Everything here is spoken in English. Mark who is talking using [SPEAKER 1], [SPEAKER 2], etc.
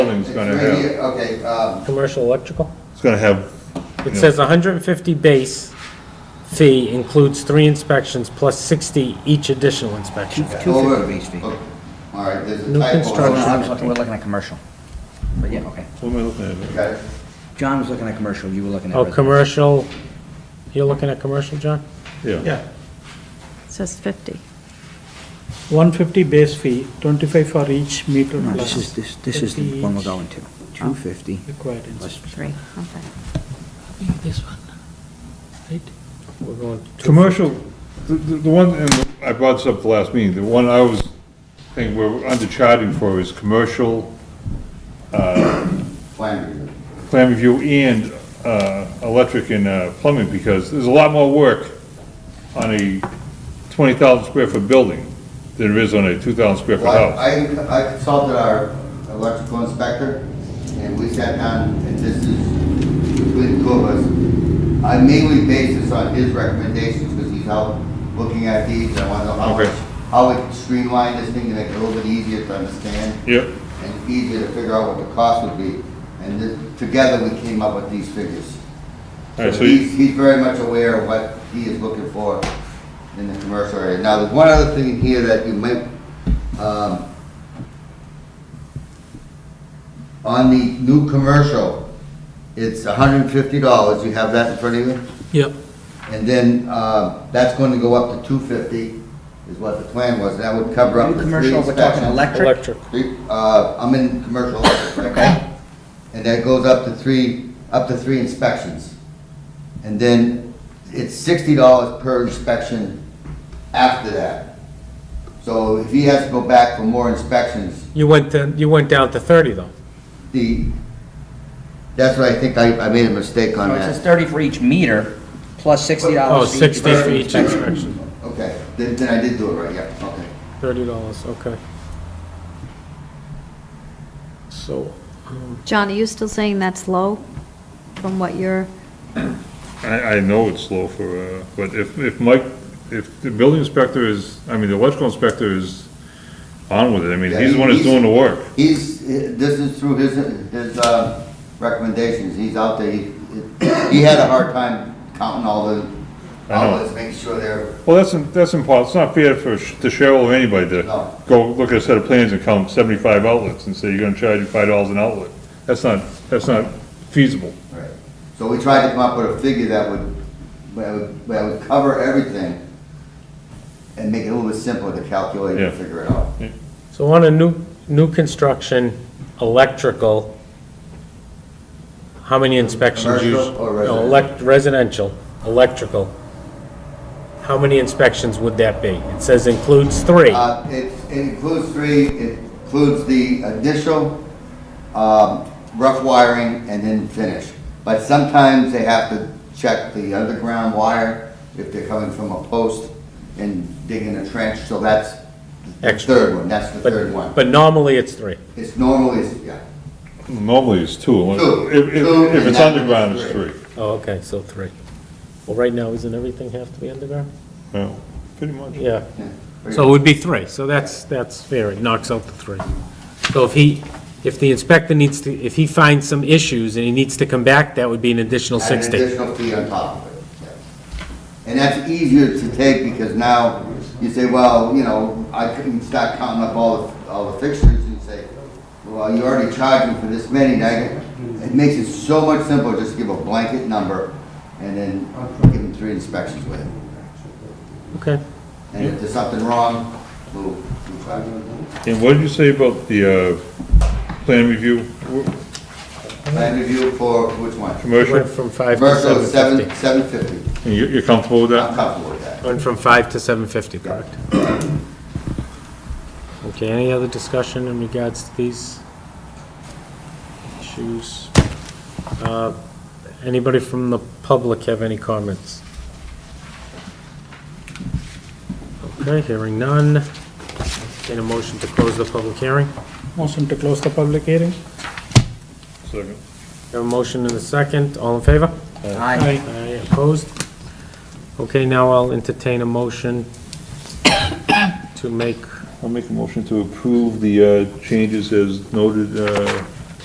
[SPEAKER 1] building's gonna
[SPEAKER 2] Three
[SPEAKER 1] have,
[SPEAKER 2] year- Okay, um,
[SPEAKER 3] Commercial electrical?
[SPEAKER 1] it's gonna have,
[SPEAKER 3] It says 150 base fee includes three inspections plus 60 each additional inspection.
[SPEAKER 2] over,
[SPEAKER 4] 250 base fee.
[SPEAKER 2] oh, all right, there's a typo.
[SPEAKER 3] New
[SPEAKER 4] No, no, I
[SPEAKER 3] construction.
[SPEAKER 4] was looking- we're looking at commercial. But yeah, okay.
[SPEAKER 1] what am I looking at?
[SPEAKER 2] Okay.
[SPEAKER 4] John was looking at commercial, you were looking at
[SPEAKER 3] Oh,
[SPEAKER 4] residential.
[SPEAKER 3] commercial, you're looking at commercial, John?
[SPEAKER 1] Yeah,
[SPEAKER 5] Yeah,
[SPEAKER 6] It says 50.
[SPEAKER 5] 150 base fee, 25 for each meter
[SPEAKER 4] No,
[SPEAKER 5] plus.
[SPEAKER 4] this is, this, this is the
[SPEAKER 5] 50
[SPEAKER 4] one we're
[SPEAKER 5] each
[SPEAKER 4] going to. 250
[SPEAKER 5] Required
[SPEAKER 4] plus,
[SPEAKER 5] inspection.
[SPEAKER 6] Three, okay.
[SPEAKER 5] This one, right?
[SPEAKER 3] We're going to-
[SPEAKER 1] commercial, the, the the one, and I brought this up at the last meeting, the one I was thinking we're undercharging for is commercial
[SPEAKER 2] Plan review.
[SPEAKER 1] plan review and, uh, electric and uh, plumbing, because there's a lot more work on a twenty thousand square foot building than there is on a two thousand square foot
[SPEAKER 2] Well,
[SPEAKER 1] house.
[SPEAKER 2] I, I consulted our electrical inspector, and we sat down, and this is between the two of us. I mainly base this on his recommendations, because he's out looking at these, and I want to know how,
[SPEAKER 1] Okay.
[SPEAKER 2] much- how we can streamline this thing to make it a little bit easier to understand,
[SPEAKER 1] Yep,
[SPEAKER 2] and easier to figure out what the cost would be, and then, together, we came up with these figures.
[SPEAKER 1] all right, so you-
[SPEAKER 2] He's, he's very much aware of what he is looking for in the commercial area. Now, there's one other thing in here that you might, um, on the new commercial, it's hundred and fifty dollars, you have that in front of you?
[SPEAKER 5] Yep.
[SPEAKER 2] And then, uh, that's going to go up to two fifty, is what the plan was, that would cover up the three
[SPEAKER 4] commercial, we're talking
[SPEAKER 2] inspections.
[SPEAKER 4] electric.
[SPEAKER 3] Electric.
[SPEAKER 2] Three, uh, I'm in commercial, okay? And that goes up to three, up to three inspections. And then it's sixty dollars per inspection after that. So if he has to go back for more inspections,
[SPEAKER 3] You went to, you went down to 30, though.
[SPEAKER 2] the, that's what I think I, I made a mistake on
[SPEAKER 4] So it
[SPEAKER 2] that.
[SPEAKER 4] says 30 for each meter, plus $60
[SPEAKER 3] Oh,
[SPEAKER 4] for each
[SPEAKER 3] 60 for
[SPEAKER 4] person.
[SPEAKER 3] each inspection,
[SPEAKER 2] Okay, then, then I did do it right, yeah, okay.
[SPEAKER 3] $30, okay. So, um,
[SPEAKER 6] John, are you still saying that's low from what you're,
[SPEAKER 1] I, I know it's slow for, uh, but if, if Mike, if the building inspector is, I mean, the electrical inspector is on with it, I mean, he's the one that's doing the work.
[SPEAKER 2] He's, this is through his, his uh, recommendations, he's out there, he, he had a hard time counting all the
[SPEAKER 1] I know.
[SPEAKER 2] outlets, making sure they're,
[SPEAKER 1] Well, that's, that's impossible, it's not fair for sh- the Cheryl or anybody
[SPEAKER 2] No.
[SPEAKER 1] to go look at a set of plans and count seventy-five outlets and say you're gonna charge you five dollars an outlet. That's not, that's not feasible.
[SPEAKER 2] right. So we tried to come up with a figure that would, that would, that would cover everything and make it a little bit simpler to calculate and
[SPEAKER 1] Yeah.
[SPEAKER 2] figure it out.
[SPEAKER 3] so on a new, new construction, electrical, how many inspections? you-
[SPEAKER 2] Commercial or
[SPEAKER 3] No, elec- Residential, electrical. How many inspections would that be? It says includes three.
[SPEAKER 2] Uh, It it includes three, it includes the initial um, rough wiring and then finish. But sometimes they have to check the underground wire if they're coming from a post and digging a trench, so that's the
[SPEAKER 3] Extra.
[SPEAKER 2] third one, that's the
[SPEAKER 3] But-
[SPEAKER 2] third one.
[SPEAKER 3] But normally it's three.
[SPEAKER 2] It's normally, yeah,
[SPEAKER 1] Normally it's two, unless-
[SPEAKER 2] Two.
[SPEAKER 1] if, if,
[SPEAKER 2] Two,
[SPEAKER 1] if
[SPEAKER 2] and
[SPEAKER 1] it's
[SPEAKER 2] that
[SPEAKER 1] underground,
[SPEAKER 2] one's
[SPEAKER 1] it's
[SPEAKER 2] three.
[SPEAKER 1] three.
[SPEAKER 3] Oh, okay, so three. Well, right now, isn't everything have to be underground?
[SPEAKER 1] Yeah, pretty much.
[SPEAKER 3] Yeah.
[SPEAKER 2] yeah.
[SPEAKER 3] So it would be three, so that's, that's fair, it knocks out the three. So if he, if the inspector needs to, if he finds some issues and he needs to come back, that would be an additional
[SPEAKER 2] Add an
[SPEAKER 3] 60.
[SPEAKER 2] additional fee on top of it, yes. And that's easier to take because now you say, well, you know, I couldn't start counting up all, the all the fixtures and say, well, you're already charging for this many, now you- it makes it so much simpler just to give a blanket number and then give them three inspections with it.
[SPEAKER 3] Okay.
[SPEAKER 2] And if there's something wrong, we'll, we'll try.
[SPEAKER 1] And what did you say about the, uh, plan review, Wh-
[SPEAKER 2] Plan review for which one?
[SPEAKER 3] Went
[SPEAKER 1] commercial?
[SPEAKER 3] from 5 to
[SPEAKER 2] Commercial, seven,
[SPEAKER 3] 750.
[SPEAKER 2] seven fifty.
[SPEAKER 1] And you, you're comfortable with that?
[SPEAKER 2] I'm comfortable with that.
[SPEAKER 3] Went from 5 to 750, correct? Okay, any other discussion in regards to these issues? Uh, Anybody from the public have any comments? Okay, hearing none. Entertain a motion to close the public hearing.
[SPEAKER 5] Motion to close the public hearing?
[SPEAKER 1] Second.
[SPEAKER 3] Have a motion and a second, all in favor?
[SPEAKER 4] Aye.
[SPEAKER 3] Aye, opposed? Okay, now I'll entertain a motion to make
[SPEAKER 1] I'll make a motion to approve the uh, changes as noted uh,